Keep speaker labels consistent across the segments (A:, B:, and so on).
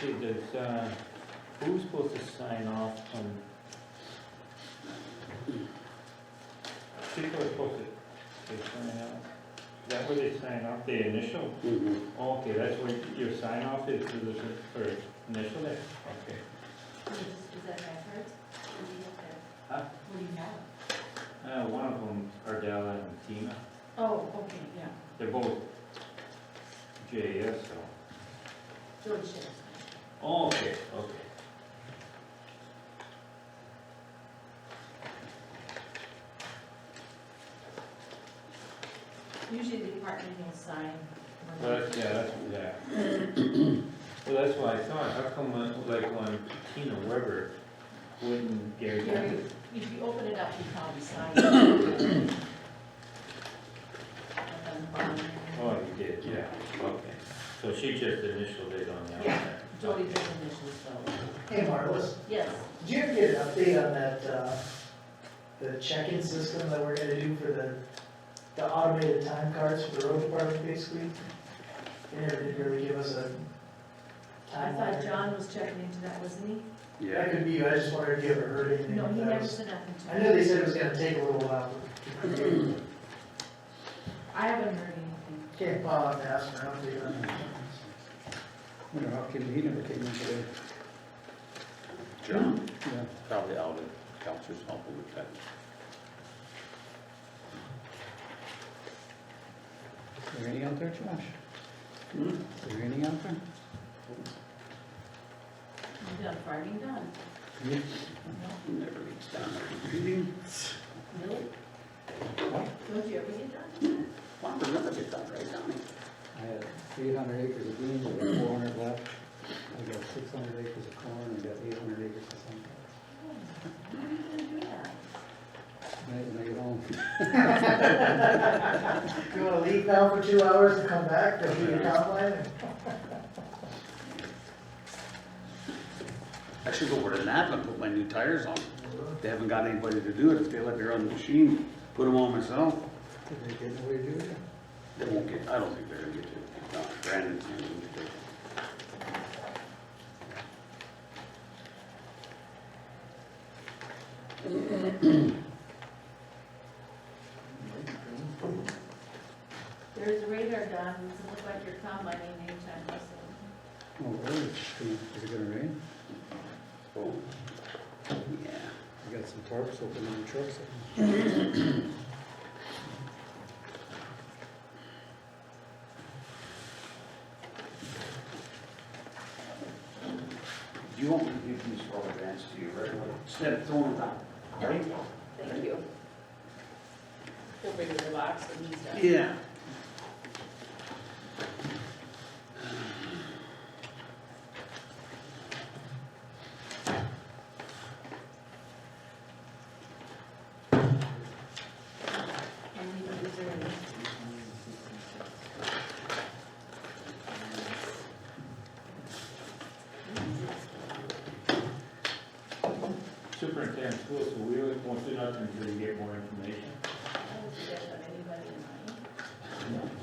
A: see, does, uh, who's supposed to sign off on? People are supposed to, they sign off, is that where they sign off, the initial?
B: Mhm.
A: Okay, that's where your sign off is, is it for initial there, okay.
C: Is is that backwards? What do you have there?
A: Huh?
C: What do you have?
A: Uh, one of them, Ardella and Tina,
C: Oh, okay, yeah,
A: they're both JS, so,
C: George Sheriff.
A: oh, okay, okay.
C: Usually the department will sign. when
A: Well,
C: they-
A: that's, yeah, that's, yeah. Well, that's why I thought, how come, uh, like, on Tina Weber, wouldn't Gary
C: Gary,
A: Gensler?
C: If you open it up, you probably sign it. And then bottom.
A: Oh, you did, yeah, okay. So she just initialed it on the
C: Yeah.
A: outside.
C: Jody did initials though.
D: Hey, Marlis,
C: Yes,
D: did you ever get an update on that, uh, the check-in system that we're gonna do for the, the automated time cards for the road department, basically? They never did really give us a
C: I thought
D: timeline.
C: John was checking into that, wasn't
D: That could be, you. I just wondered if you ever heard
C: he?
D: anything.
C: No, he
D: That
C: never
D: was-
C: said nothing to me.
D: I know they said it was gonna take a little while.
C: I haven't heard anything.
D: Can't follow up and ask for an update on that.
E: Wonder how came, he never came in today.
B: John,
E: Yeah.
B: probably out of counselor's office with that.
E: Is there any out there, Josh?
B: Hmm?
E: Is there any out there?
C: You've done farming done.
E: Yeah.
C: No,
B: Never gets down there. Meeting,
C: really? Don't you ever get done?
B: Well, it never gets done, right, Donnie?
E: I had eight hundred acres of beans, I got four hundred left. I got six hundred acres of corn, I got eight hundred acres of sunflower.
C: How are you gonna do that?
E: When I- When I get home,
D: You wanna leave now for two hours and come back, there'll be a timeline?
B: I should go over to Napa and put my new tires on. They haven't got anybody to do it. If they let me run the machine, put them on myself,
E: did they get away to do it?
B: they won't get, I don't think they're gonna get to it. No, Brandon's gonna get it.
C: There's a radar gun, it look like you're combining anytime, Russell.
E: Oh, really? Is it gonna rain?
B: Oh, yeah.
E: I got some tarps open in the trucks.
B: Do you want me to give these rubber bands to you right away? Instead of throwing them out, right?
C: Thank you. He'll bring the box and he's done.
B: Yeah.
C: And we can reserve it.
A: Superintendent school, so we always won't do nothing until we get more information.
C: I don't think I've got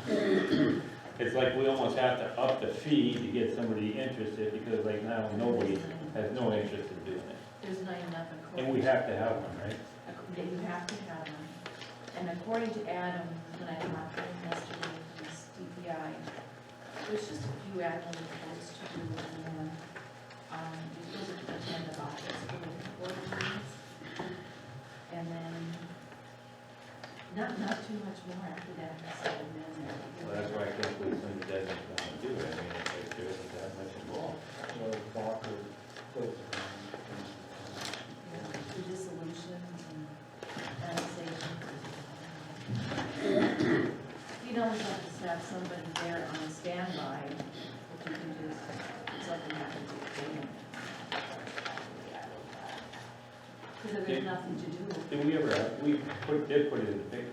C: anybody in mind.
A: It's like we almost have to up the fee to get somebody interested, because like now, nobody has no interest in doing it.
C: There's not enough according.
A: And we have to have one, right?
C: Ac- That you have to have them. And according to Adam, when I talked to him yesterday, from his DPI, there's just a few annual reports to do, and then, um, you still have to attend the office for the board meetings. And then, not, not too much more after that, so then.
A: Well, that's why I think we, some doesn't want to do it, I mean, it's like there isn't that much involved.
C: Yeah, The dissolutions and annexation. You'd always have to have somebody there on standby if you can just, if something happens to the family. Because there's nothing to do.
A: Did we ever, we put, did put it in the picture,